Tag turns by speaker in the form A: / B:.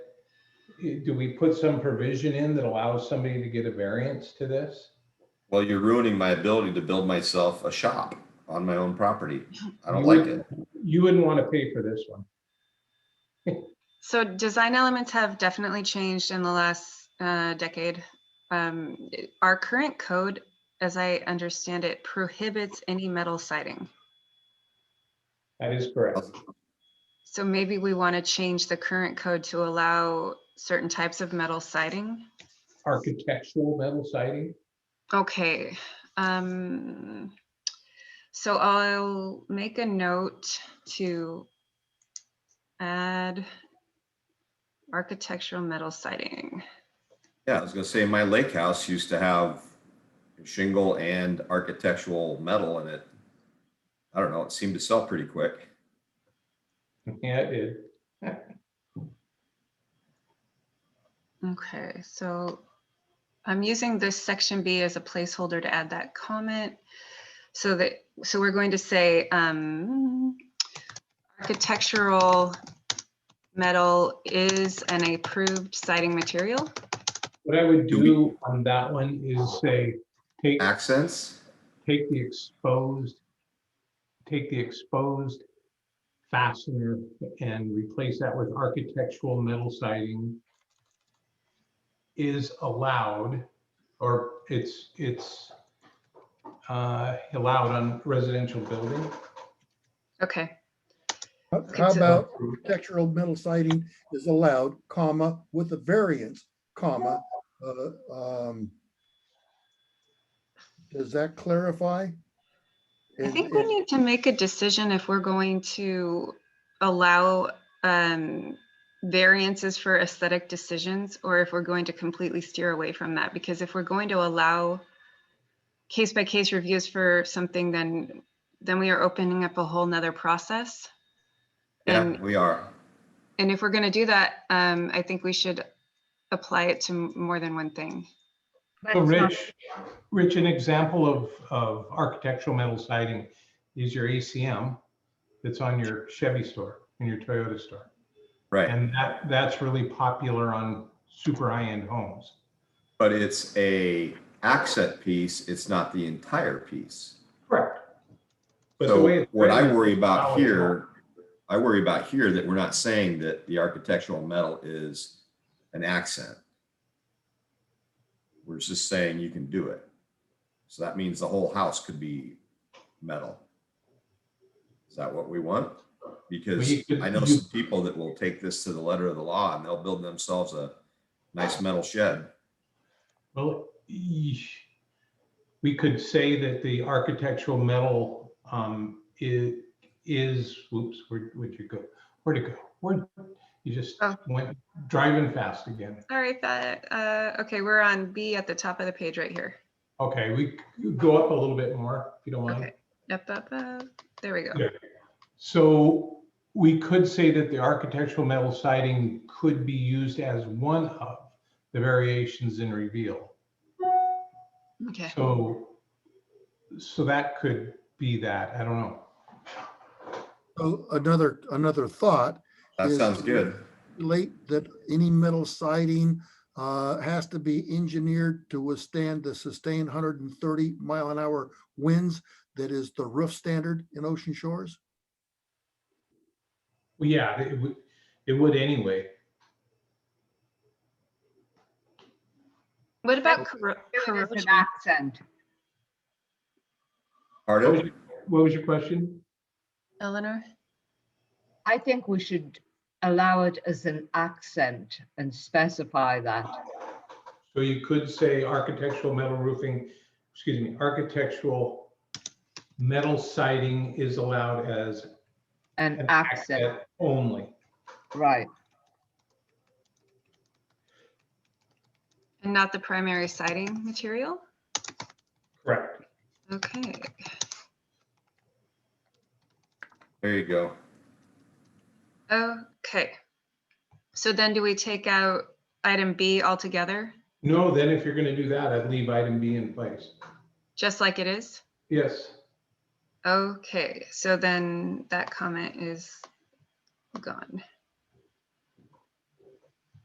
A: do we put some provision in that allows somebody to get a variance to this?
B: Well, you're ruining my ability to build myself a shop on my own property. I don't like it.
A: You wouldn't want to pay for this one.
C: So design elements have definitely changed in the last uh, decade. Um, it- Our current code, as I understand it, prohibits any metal siding.
A: That is correct.
C: So maybe we want to change the current code to allow certain types of metal siding.
A: Architectural metal siding,
C: Okay. um, So I'll make a note to add architectural metal siding.
B: Yeah, I was gonna say, my lake house used to have shingle and architectural metal in it. I don't know, it seemed to sell pretty quick.
A: yeah, it is.
C: Okay, so I'm using this section B as a placeholder to add that comment. So that, so we're going to say um, architectural metal is an approved siding material.
A: What I would
B: Do we-
A: do on that one is say, take,
B: Accents?
A: take the exposed, take the exposed fastener and replace that with architectural metal siding is allowed, or it's, it's uh, allowed on residential building.
C: Okay,
D: How
C: It's uh,
D: how
C: a-
D: about architectural metal siding is allowed, comma, with a variance, comma, uh, um, does that clarify?
C: I
D: And-
C: think we
D: and-
C: need to make a decision if we're going to allow um, variances for aesthetic decisions or if we're going to completely steer away from that. Because if we're going to allow case by case reviews for something, then, then we are opening up a whole nother process.
B: Yeah,
C: And
B: we are.
C: and if we're going to do that, um, I think we should apply it to m- more than one thing.
E: But
A: So
E: it's not-
A: Rich, Rich, an example of, of architectural metal siding is your ACM that's on your Chevy store and your Toyota store.
B: Right,
A: And that, that's really popular on super high-end homes.
B: but it's a accent piece, it's not the entire piece.
A: Correct. But the way
B: So
A: it's
B: what I
A: written,
B: worry
A: solid
B: about
A: wall.
B: here, I worry about here that we're not saying that the architectural metal is an accent. We're just saying you can do it. So that means the whole house could be metal. Is that what we want? Because
A: Well, you could-
B: I know
A: you-
B: some people that will take this to the letter of the law and they'll build themselves a nice metal shed.
A: Well, eesh. we could say that the architectural metal um, i- is, whoops, where, where'd you go? Where'd it go? Where, you just
C: Oh.
A: went driving fast again.
C: All right, that, uh, okay, we're on B at the top of the page right here.
A: Okay, we c- go up a little bit more, if you don't mind.
C: Okay, up, up, up. There we go.
A: Yeah. So we could say that the architectural metal siding could be used as one of the variations in reveal.
C: Okay.
A: So, so that could be that, I don't know.
D: So Another, another thought,
B: That
D: Is-
B: sounds good.
D: relate that any metal siding uh, has to be engineered to withstand the sustained 130 mile an hour winds that is the roof standard in ocean shores?
A: Well, yeah, it would, it would anyway.
C: What about
E: was-
C: corro-
E: It was just
C: corrosion?
E: an accent.
A: What
B: Pardon?
A: was your- what was your question?
C: Eleanor?
E: I think we should allow it as an accent and specify that.
A: So you could say architectural metal roofing, excuse me, architectural metal siding is allowed as
E: An
A: an
E: accent,
A: accent only.
E: right.
C: And not the primary siding material?
A: Correct.
C: Okay,
B: There you go.
C: okay. So then do we take out item B altogether,
A: No, then if you're gonna do that, I'd leave item B in place.
C: just like it is?
A: Yes,
C: Okay, so then that comment is gone.